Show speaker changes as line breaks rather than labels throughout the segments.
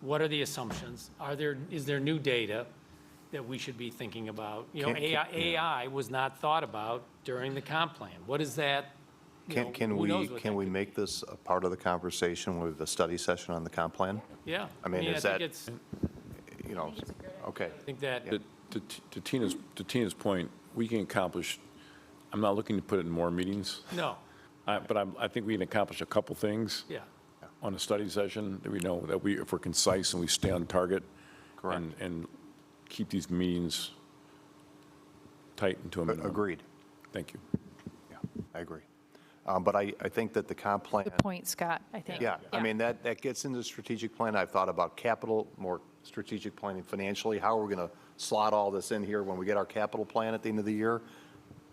What are the assumptions? Are there, is there new data that we should be thinking about? You know,
Can- can-
AI, AI was not thought about during the comp plan. What is that? you know,
Can, can
who
we,
knows what
can
that
we
could-
make this a part of the conversation with the study session on the comp plan?
Yeah.
I mean, is that-
I think it's,
You know, okay.
I think that,
To- To to Tina's, to Tina's point, we can accomplish, I'm not looking to put it in more meetings,
no,
I- but I'm, I think we can accomplish a couple things.
yeah.
On a study session, that we know that we, if we're concise and we stay on target.
Correct.
and- And keep these meetings tight and to a minimum.
Agreed.
Thank you.
Yeah, I agree. Um, But I, I think that the comp plan,
Good point, Scott, I think.
yeah, I mean, that, that gets into strategic plan. I've thought about capital, more strategic planning financially. How are we going to slot all this in here when we get our capital plan at the end of the year?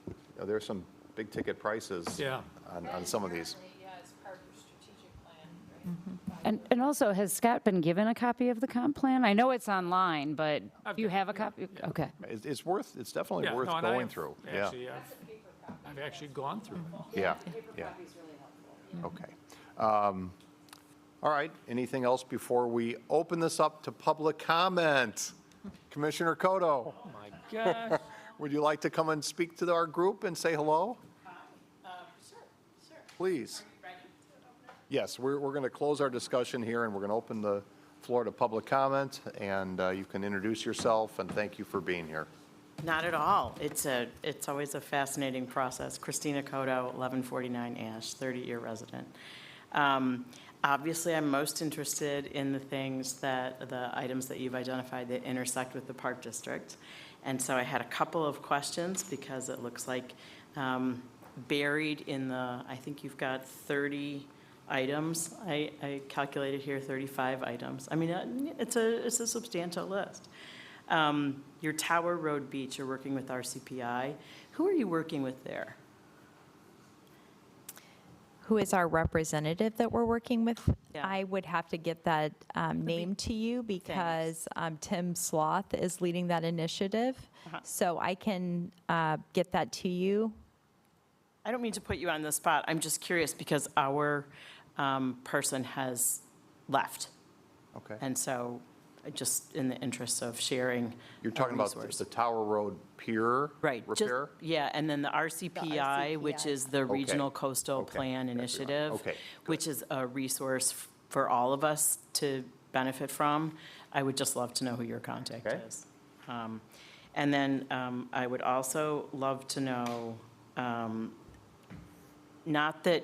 You know, There's some big ticket prices.
Yeah.
On, on some of these.
Currently, Yeah, it's part of your strategic plan, right?
And, and also, has Scott been given a copy of the comp plan? I know it's online, but do you have a copy? Okay.
It's, it's worth, it's definitely
Yeah,
worth
no, and I
going
have
through. Yeah.
Actually, I've, I've actually gone through it.
Yeah, yeah. Okay. Um, All right, anything else before we open this up to public comment? Commissioner Koto,
Oh, my gosh.
would you like to come and speak to our group and say hello?
Uh, Sure, sure.
Please.
Ready?
Yes, we're, we're going to close our discussion here, and we're going to open the floor to public comment, and uh, you can introduce yourself, and thank you for being here.
Not at all. It's a, it's always a fascinating process. Christina Coto, 1149 Ash, 30-year resident. Um, Obviously, I'm most interested in the things that, the items that you've identified that intersect with the Park District. And so I had a couple of questions because it looks like um, buried in the, I think you've got 30 items. I, I calculated here 35 items. I mean, uh, it's a, it's a substantial list. Um, Your Tower Road Beach, you're working with RCPI. Who are you working with there?
who is our representative that we're working with.
Yeah.
I would have to get that um, name to you because um, Tim Sloth is leading that initiative. So I can uh, get that to you.
I don't mean to put you on the spot. I'm just curious because our um, person has left.
Okay.
And so, I just in the interest of sharing.
You're
a
talking about
resource.
the Tower Road Pier
Right. just-
repair?
Yeah, and then the RCPI, which
RCPI.
is the Regional Coastal
Okay.
Plan
Gotcha.
Initiative.
Okay,
Which is a resource f- for all of us to benefit from. I would just love to know who your contact
Okay.
is. Um, And then um, I would also love to know, um, not that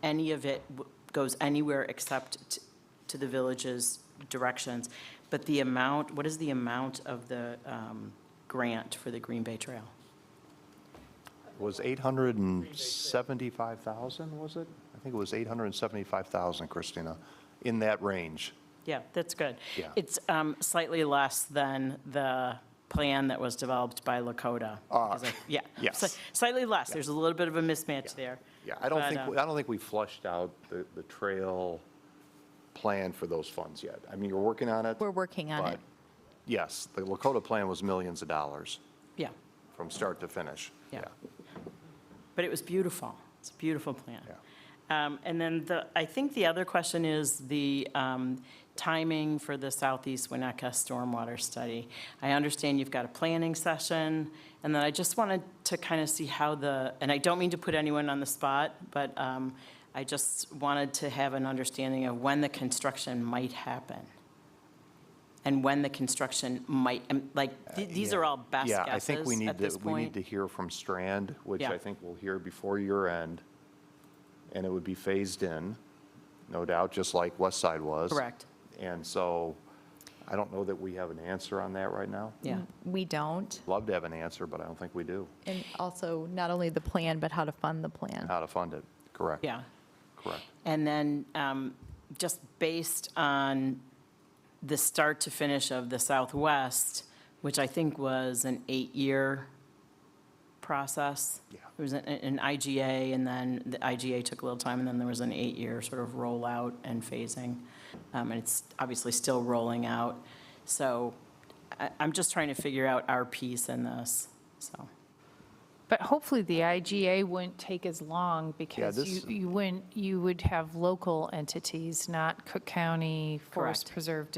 any of it w- goes anywhere except t- to the village's directions, but the amount, what is the amount of the um, grant for the Green Bay Trail?
was 875,000, was it? I think it was 875,000, Christina, in that range.
Yeah, that's good.
Yeah.
It's um, slightly less than the plan that was developed by Lakota. because I- Yeah.
Ah. yes.
sli- Slightly less. There's a little bit of a mismatch there.
Yeah, I don't
But,
think,
um,
I don't think we flushed out the, the trail plan for those funds yet. I mean, you're working on it.
We're working on it.
but Yes, the Lakota plan was millions of dollars
Yeah,
from start to finish.
yeah. But it was beautiful. It's a beautiful plan. Um, And then the, I think the other question is the um, timing for the Southeast Winnetka Stormwater Study. I understand you've got a planning session, and then I just wanted to kind of see how the, and I don't mean to put anyone on the spot, but um, I just wanted to have an understanding of when the construction might happen, and when the construction might, um, like, th- these are
Uh, Yeah.
all best
Yeah, I
guesses
think we need
at this
to, we need
point.
to hear from Strand, which
Yeah.
I think we'll hear before year end. And it would be phased in, no doubt, just like West Side was.
Correct.
And so I don't know that we have an answer on that right now.
Yeah.
We don't.
Love to have an answer, but I don't think we do,
And also, not only the plan, but how to fund the plan.
how to fund it. Correct.
Yeah.
Correct.
And then, um, just based on the start to finish of the Southwest, which I think was an eight-year process.
Yeah.
It was an- an IGA, and then the IGA took a little time, and then there was an eight-year sort of rollout and phasing. Um, And it's obviously still rolling out. So I- I'm just trying to figure out our piece in this, so.
But hopefully the IGA wouldn't take as long because
this-
you, you wouldn't, you would have local entities, not Cook County Forest
Correct.
Preserve